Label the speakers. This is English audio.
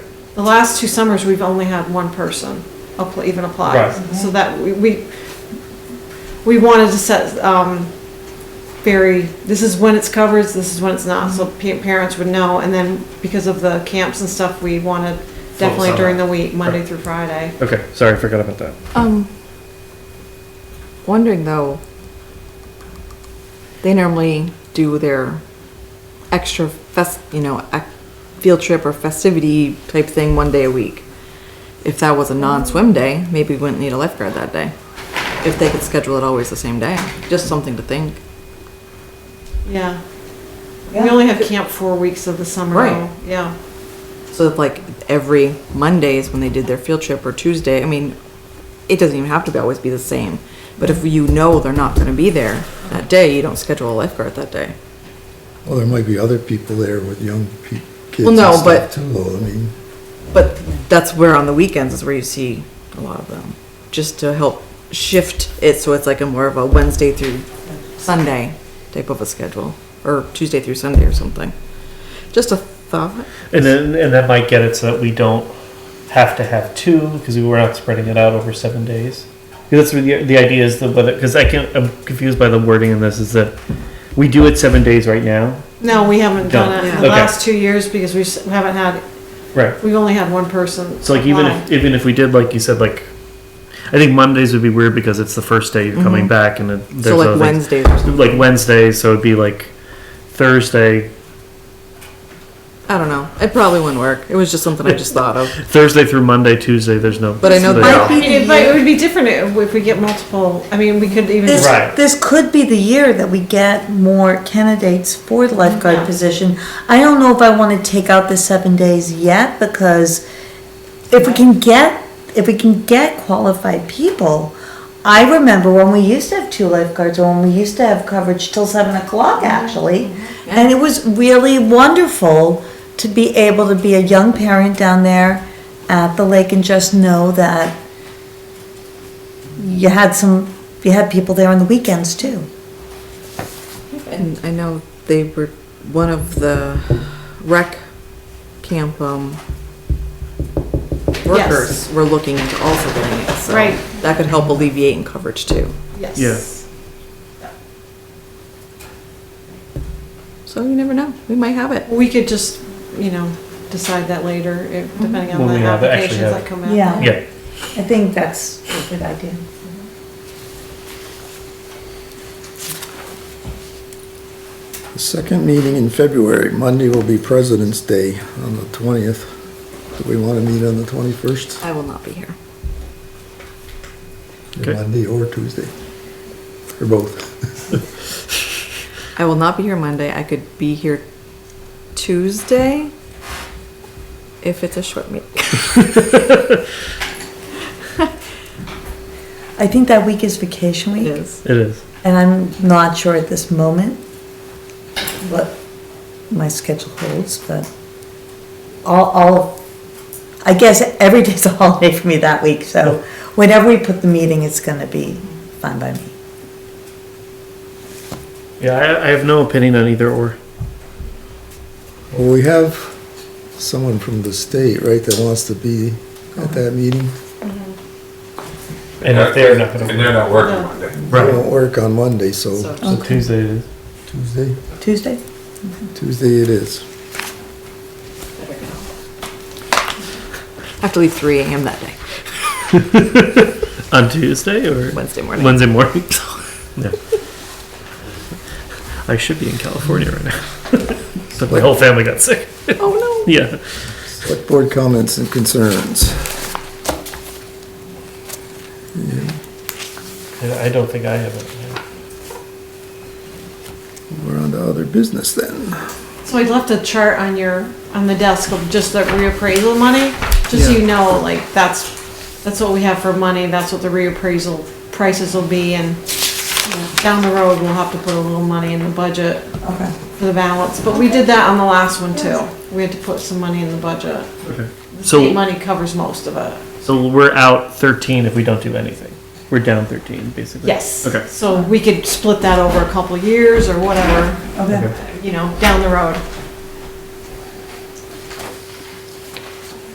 Speaker 1: The last two summers, we've only had one person appl- even apply.
Speaker 2: Right.
Speaker 1: So that, we- we, we wanted to set, um, very, this is when it's covered, this is when it's not, so pa- parents would know. And then because of the camps and stuff, we wanted definitely
Speaker 2: summer.
Speaker 1: during the week, Monday
Speaker 2: Right.
Speaker 1: through Friday.
Speaker 2: Okay, sorry, I forgot about that.
Speaker 3: Um, wondering though, they normally do their extra fest, you know, ac- field trip or festivity type thing one day a week. If that was a non-swim day, maybe we wouldn't need a lifeguard that day. If they could schedule it always the same day, just something to think.
Speaker 1: Yeah.
Speaker 4: Yeah.
Speaker 1: We only have camp four weeks of the summer.
Speaker 3: Right.
Speaker 1: though. Yeah.
Speaker 3: So if like every Mondays when they did their field trip or Tuesday, I mean, it doesn't even have to be always be the same. But if you know they're not gonna be there that day, you don't schedule a lifeguard that day.
Speaker 5: Well, there might be other people there with young pe- kids
Speaker 3: Well,
Speaker 5: and
Speaker 3: no, but-
Speaker 5: stuff too, though, I mean,
Speaker 3: But that's where on the weekends is where you see a lot of them, just to help shift it so it's like a more of a Wednesday through Sunday type of a schedule, or Tuesday through Sunday or something. Just a thought.
Speaker 2: And then, and that might get it so that we don't have to have two because we were not spreading it out over seven days. 'Cause That's what the, the idea is the whether because I can I'm confused by the wording in this is that we do it seven days right now,
Speaker 1: No, we haven't done
Speaker 2: Done.
Speaker 1: it in
Speaker 2: Okay.
Speaker 1: the last two years because we s- haven't had,
Speaker 2: right?
Speaker 1: we've only had one person.
Speaker 2: So like even
Speaker 1: apply.
Speaker 2: if even if we did like you said like, I think Mondays would be weird because it's the first day you're coming back and it, there's
Speaker 3: Mm-hmm. So
Speaker 2: other things.
Speaker 3: like Wednesdays or something.
Speaker 2: like Wednesday, so it'd be like Thursday,
Speaker 3: I don't know. It probably wouldn't work. It was just something I just thought of.
Speaker 2: Thursday through Monday, Tuesday. There's no.
Speaker 3: But I know
Speaker 2: they
Speaker 3: that-
Speaker 2: all-
Speaker 4: Might be
Speaker 1: It might- it would be different if if we get multiple, I mean, we could even.
Speaker 4: This,
Speaker 2: Right.
Speaker 4: this could be the year that we get more candidates for the
Speaker 1: Yeah.
Speaker 4: lifeguard position. I don't know if I wanna take out the seven days yet, because if we can get, if we can get qualified people, I remember when we used to have two lifeguards, or when we used to have coverage till seven o'clock, actually. And it was really wonderful to be able to be a young parent down there at the lake and just know that you had some, you had people there on the weekends too.
Speaker 3: And I know they were, one of the rec camp, um, workers were looking into also getting it, so.
Speaker 1: Right.
Speaker 3: That could help alleviate in coverage too.
Speaker 1: Yes.
Speaker 2: Yeah.
Speaker 3: So you never know. We might have it.
Speaker 1: We could just, you know, decide that later, if- depending on
Speaker 2: When
Speaker 1: the
Speaker 2: we have- actually
Speaker 1: applications
Speaker 2: have-
Speaker 1: that come in.
Speaker 4: Yeah.
Speaker 2: Yeah.
Speaker 4: I think that's a good idea.
Speaker 5: the second meeting in February, Monday will be President's Day on the twentieth. Do we want to meet on the twenty-first,
Speaker 3: I will not be here.
Speaker 2: Okay.
Speaker 5: Monday or Tuesday? Or both?
Speaker 3: I will not be here Monday. I could be here Tuesday if it's a short meeting.
Speaker 4: I think that week is vacation
Speaker 3: It
Speaker 4: week,
Speaker 3: is.
Speaker 2: It is.
Speaker 4: and I'm not sure at this moment what my schedule holds, but all, all, I guess every day's a holiday for me that week, so whenever we put the meeting, it's gonna be fine by me.
Speaker 2: Yeah, I, I have no opinion on either or.
Speaker 5: Well, we have someone from the state, right, that wants to be at that meeting.
Speaker 2: And if they're not going
Speaker 6: And
Speaker 2: to
Speaker 6: they're not
Speaker 1: No.
Speaker 6: working Monday.
Speaker 5: They won't work on Monday,
Speaker 3: So-
Speaker 5: so
Speaker 2: So Tuesday it is.
Speaker 5: Tuesday,
Speaker 4: Tuesday?
Speaker 5: Tuesday it is.
Speaker 3: I have to leave three AM that day,
Speaker 2: on Tuesday or
Speaker 3: Wednesday morning.
Speaker 2: Wednesday morning. yeah. I should be in California right now. but my whole family got sick.
Speaker 3: Oh, no.
Speaker 2: Yeah.
Speaker 5: Select board comments and concerns.
Speaker 2: I don't think I have it.
Speaker 5: We're on to other business then.
Speaker 1: So I left a chart on your, on the desk of just the reappraisal money, just so
Speaker 5: Yeah.
Speaker 1: you know, like, that's, that's what we have for money, that's what the reappraisal prices will be, and you know, down the road, we'll have to put a little money in the budget
Speaker 4: Okay.
Speaker 1: for the balance, but we did that on the last one too. We had to put some money in the budget.
Speaker 2: Okay.
Speaker 1: State
Speaker 2: So
Speaker 1: money covers most of it.
Speaker 2: so we're out 13 if we don't do anything. We're down 13 basically.
Speaker 1: Yes.
Speaker 2: Okay.
Speaker 1: So we could split that over a couple of years or whatever,
Speaker 4: Okay.
Speaker 1: you know, down the road.